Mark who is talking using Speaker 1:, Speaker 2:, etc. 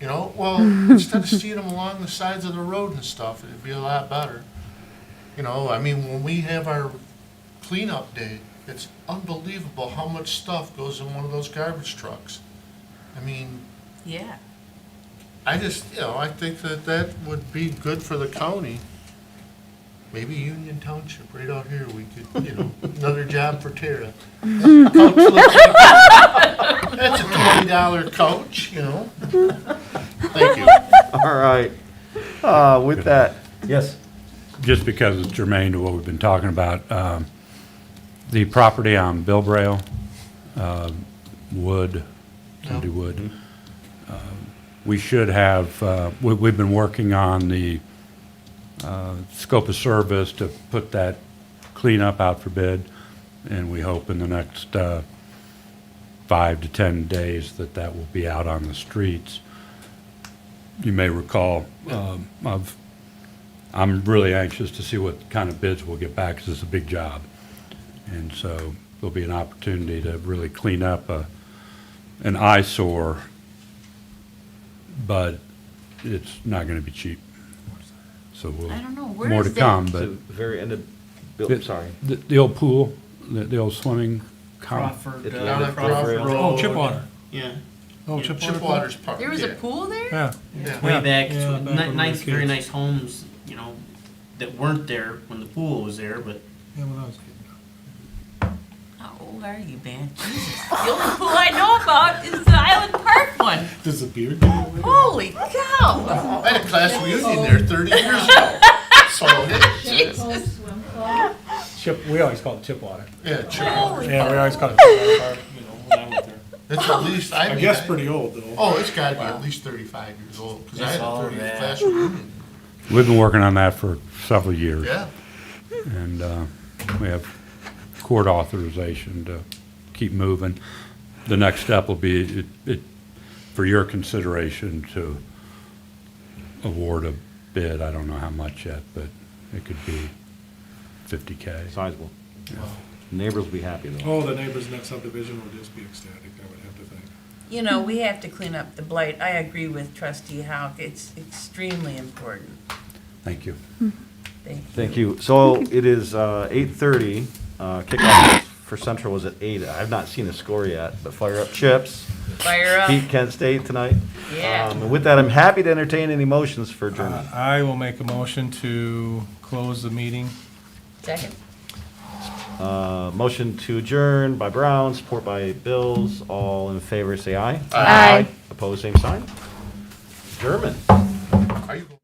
Speaker 1: You know, well, instead of seeing them along the sides of the road and stuff, it'd be a lot better. You know, I mean, when we have our cleanup day, it's unbelievable how much stuff goes in one of those garbage trucks. I mean,
Speaker 2: Yeah.
Speaker 1: I just, you know, I think that that would be good for the county. Maybe Union Township, right out here, we could, you know, another job for Tara. Couch looking- That's a twenty dollar couch, you know? Thank you.
Speaker 3: All right. Uh, with that, yes.
Speaker 4: just because it's germane to what we've been talking about, um, the property on Bilbrail, uh, Wood, Sunday Wood, um, we should have, uh, we, we've been working on the, uh, scope of service to put that cleanup out for bid, and we hope in the next, uh, five to 10 days that that will be out on the streets. You may recall, um, I've I'm really anxious to see what kind of bids we'll get back, because it's a big job. And so there'll be an opportunity to really clean up a, an eyesore, but it's not gonna be cheap. So we'll,
Speaker 2: I don't know, where
Speaker 4: more to
Speaker 2: is that?
Speaker 4: come,
Speaker 3: The
Speaker 4: but.
Speaker 3: very end of, Bill,
Speaker 4: the-
Speaker 3: sorry.
Speaker 4: The, the old pool, the, the old swimming. com-
Speaker 3: It's
Speaker 5: Crawford.
Speaker 3: a
Speaker 1: Down
Speaker 3: little
Speaker 5: uh,
Speaker 1: at
Speaker 3: Crawford
Speaker 1: Crawford
Speaker 3: Road.
Speaker 1: Road.
Speaker 5: Oh, Chipwater.
Speaker 1: Yeah.
Speaker 5: Oh,
Speaker 1: Yeah,
Speaker 5: Chipwater.
Speaker 1: Chipwaters Park.
Speaker 2: There was
Speaker 1: yeah.
Speaker 2: a pool there?
Speaker 4: Yeah,
Speaker 1: Yeah.
Speaker 5: Yeah,
Speaker 6: way back,
Speaker 5: yeah,
Speaker 6: to-
Speaker 5: back
Speaker 6: ni-
Speaker 5: when we
Speaker 6: nice,
Speaker 5: were
Speaker 6: very
Speaker 5: kids.
Speaker 6: nice homes, you know, that weren't there when the pool was there, but
Speaker 5: Yeah, when I was a kid.
Speaker 2: How old are you, man? Jesus. The only pool I know about is the Island Park one.
Speaker 5: Does the beard go away?
Speaker 2: Holy cow!
Speaker 1: I had Oh, a class reunion there thirty years ago. So,
Speaker 2: Jesus.
Speaker 5: Chip, we always call it Chipwater.
Speaker 1: yeah, sure.
Speaker 2: Holy
Speaker 5: Yeah, we
Speaker 2: cow.
Speaker 5: always call it Chipwater, you know, when I went there.
Speaker 1: It's at least, I
Speaker 5: I
Speaker 1: mean.
Speaker 5: guess
Speaker 1: I-
Speaker 5: pretty old, though.
Speaker 1: Oh, it's gotta be at least thirty-five years old, cause I
Speaker 6: It's
Speaker 1: had a
Speaker 6: all
Speaker 1: thirty
Speaker 6: that.
Speaker 1: class reunion.
Speaker 4: we've been working on that for several years.
Speaker 1: Yeah.
Speaker 4: And uh, we have court authorization to keep moving. The next step will be, it- it- for your consideration, to award a bid. I don't know how much yet, but it could be 50K.
Speaker 3: Sizable. Neighbors will be happy though.
Speaker 5: Oh, the neighbor's next subdivision would just be ecstatic, I would have to think.
Speaker 7: You know, we have to clean up the blight. I agree with trustee Houck. It's extremely important.
Speaker 4: Thank you.
Speaker 7: Thank you.
Speaker 3: Thank you. So it is, uh, eight thirty, uh, kickoff for Central was at eight. I've not seen a score yet, but fire up chips.
Speaker 7: Fire up.
Speaker 3: Beat Kent State tonight.
Speaker 7: Yeah.
Speaker 3: Um, and with that, I'm happy to entertain any motions for adjournment.
Speaker 8: I will make a motion to close the meeting.
Speaker 7: Second.
Speaker 3: Uh, motion to adjourn by Brown, support by Bills. All in favor, say aye.
Speaker 9: Aye.
Speaker 3: Opposed, same sign. German.
Speaker 1: Are you?